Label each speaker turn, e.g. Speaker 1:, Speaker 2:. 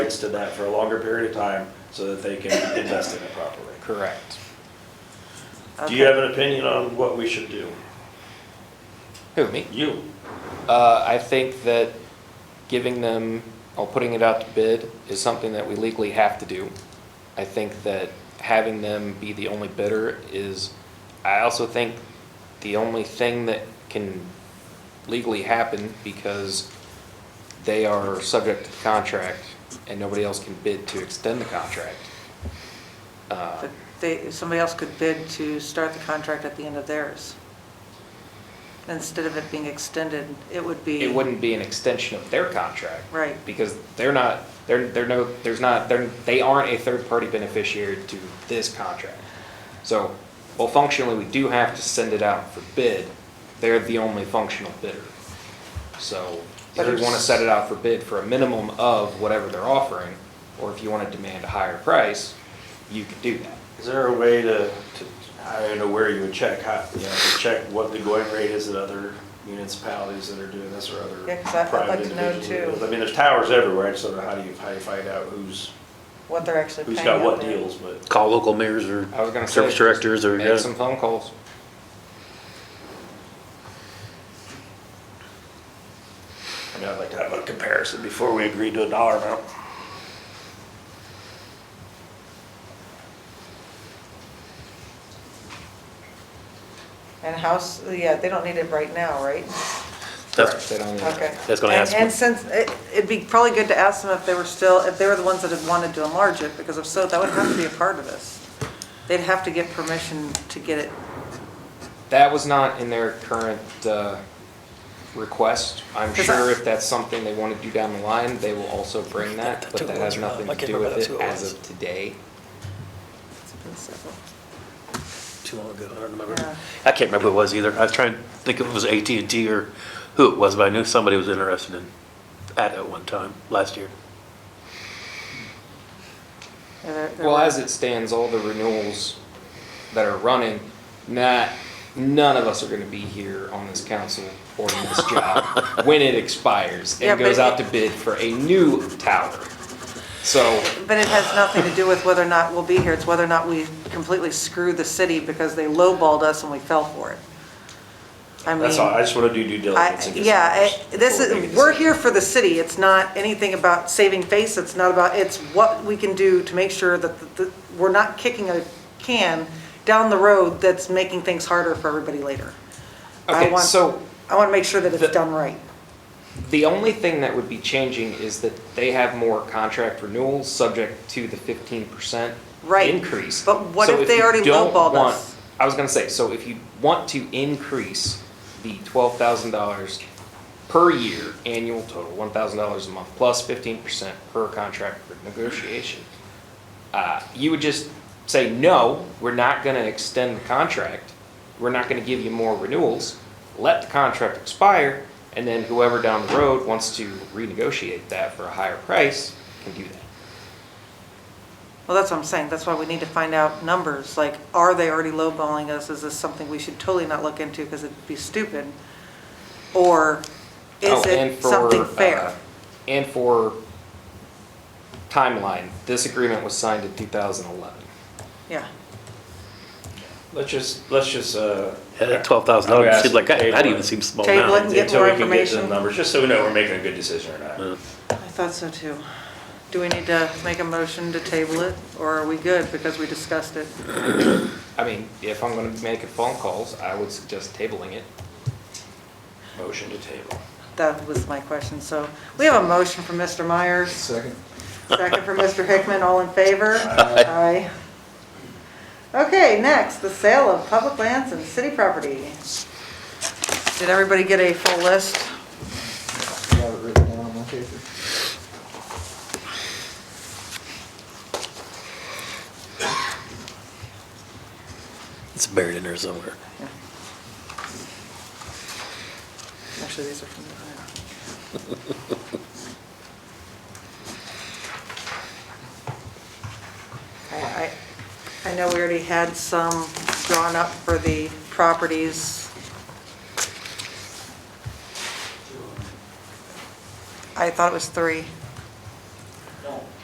Speaker 1: rights to that for a longer period of time so that they can invest in it properly.
Speaker 2: Correct.
Speaker 1: Do you have an opinion on what we should do?
Speaker 2: Who, me?
Speaker 1: You,
Speaker 2: Uh, I think that giving them, or putting it out to bid is something that we legally have to do. I think that having them be the only bidder is, I also think the only thing that can legally happen because they are subject to the contract and nobody else can bid to extend the contract. Uh,
Speaker 3: But They, somebody else could bid to start the contract at the end of theirs. Instead of it being extended, it would be.
Speaker 2: It wouldn't be an extension of their contract.
Speaker 3: Right.
Speaker 2: because they're not, they're, they're no, there's not, they're, they aren't a third-party beneficiary to this contract. So, well, functionally, we do have to send it out for bid. They're the only functional bidder. So if
Speaker 3: But
Speaker 2: you
Speaker 3: it's-
Speaker 2: want to set it out for bid for a minimum of whatever they're offering, or if you want to demand a higher price, you can do that.
Speaker 1: is there a way to, to, I don't know where you would check, how, you know, to check what the going rate is at other municipalities that are doing this or other
Speaker 3: Yeah, 'cause I- I'd
Speaker 1: private
Speaker 3: like to know
Speaker 1: individuals? that
Speaker 3: too.
Speaker 1: do this? I mean, there's towers everywhere, I just don't know how do you, how you find out who's,
Speaker 3: What they're actually
Speaker 1: who's
Speaker 3: paying.
Speaker 1: got what
Speaker 3: out there.
Speaker 1: deals, but.
Speaker 4: Call local mayors or
Speaker 2: I was gonna say.
Speaker 4: service directors or,
Speaker 2: Make some phone calls.
Speaker 1: I mean, I'd like to have a comparison before we agree to a dollar amount.
Speaker 5: And house, yeah, they don't need it right now, right?
Speaker 4: that's,
Speaker 2: They don't-
Speaker 5: Okay.
Speaker 4: That's gonna
Speaker 3: And-
Speaker 4: ask
Speaker 3: And
Speaker 4: me.
Speaker 3: since, it- it'd be probably good to ask them if they were still, if they were the ones that had wanted to enlarge it, because if so, that would have to be a part of this. They'd have to get permission to get it.
Speaker 2: That was not in their current uh, request. I'm
Speaker 3: Because
Speaker 2: sure
Speaker 3: I-
Speaker 2: if that's something they want to do down the line, they will also bring that, but that has nothing to do with it as of today.
Speaker 3: It's been several.
Speaker 4: too long ago, I don't remember.
Speaker 3: Yeah.
Speaker 4: I can't remember who it was either. I was trying to think if it was AT&T or who it was, but I knew somebody was interested in that at one time, last year.
Speaker 3: Yeah, they're- they're-
Speaker 2: Well, as it stands, all the renewals that are running, not, none of us are going to be here on this council or in this job when it expires
Speaker 3: Yeah,
Speaker 2: and
Speaker 3: but
Speaker 2: goes out to
Speaker 3: it-
Speaker 2: bid for a new tower. So
Speaker 3: But it has nothing to do with whether or not we'll be here, it's whether or not we completely screw the city because they lowballed us and we fell for it. I mean.
Speaker 1: That's all, I just wanna do due diligence.
Speaker 3: I,
Speaker 1: and get
Speaker 3: yeah,
Speaker 1: some
Speaker 3: I- this
Speaker 1: before we make
Speaker 3: is,
Speaker 1: a
Speaker 3: we're
Speaker 1: decision.
Speaker 3: here for the city, it's not anything about saving face, it's not about, it's what we can do to make sure that, the- the- we're not kicking a can down the road that's making things harder for everybody later. I
Speaker 2: Okay,
Speaker 3: want-
Speaker 2: so-
Speaker 3: I want to make sure that
Speaker 2: The-
Speaker 3: it's done right.
Speaker 2: The only thing that would be changing is that they have more contract renewals, subject to the fifteen percent
Speaker 3: Right.
Speaker 2: increase.
Speaker 3: But what
Speaker 2: So
Speaker 3: if they
Speaker 2: you
Speaker 3: already
Speaker 2: don't
Speaker 3: lowballed
Speaker 2: want-
Speaker 3: us?
Speaker 2: I was gonna say, so if you want to increase the twelve thousand dollars per year, annual total, one thousand dollars a month, plus fifteen percent per contract for negotiation, uh, you would just say, no, we're not gonna extend the contract, we're not gonna give you more renewals, let the contract expire, and then whoever down the road wants to renegotiate that for a higher price can do that.
Speaker 3: Well, that's what I'm saying, that's why we need to find out numbers, like, are they already lowballing us? Is this something we should totally not look into because it'd be stupid? Or
Speaker 2: Oh,
Speaker 3: is
Speaker 2: and
Speaker 3: it
Speaker 2: for,
Speaker 3: something
Speaker 2: uh,
Speaker 3: fair?
Speaker 2: And for timeline, this agreement was signed in two thousand eleven.
Speaker 3: Yeah,
Speaker 1: Let's just, let's just, uh.
Speaker 4: Yeah, That $12,000 seemed like, that that even seems small
Speaker 3: Table it
Speaker 4: now.
Speaker 3: and get
Speaker 1: Until
Speaker 3: more
Speaker 1: we can get to the
Speaker 3: information.
Speaker 1: numbers, just so we know we're making a good decision or not.
Speaker 4: Uh,
Speaker 3: I thought so too. Do we need to make a motion to table it, or are we good because we discussed it?
Speaker 2: I mean, if I'm gonna be making phone calls, I would suggest tabling it.
Speaker 1: Motion to table.
Speaker 3: That was my question, so we have a motion from Mr. Myers,
Speaker 2: Second.
Speaker 3: second from Mr. Hickman, all in favor? Aye. Okay, next, the sale of public lands and city property. Did everybody get a full list?
Speaker 6: I have it written down on my paper.
Speaker 4: It's buried in there somewhere.
Speaker 3: Actually, these are from the, I, I- I know we already had some drawn up for the properties. I thought it was three.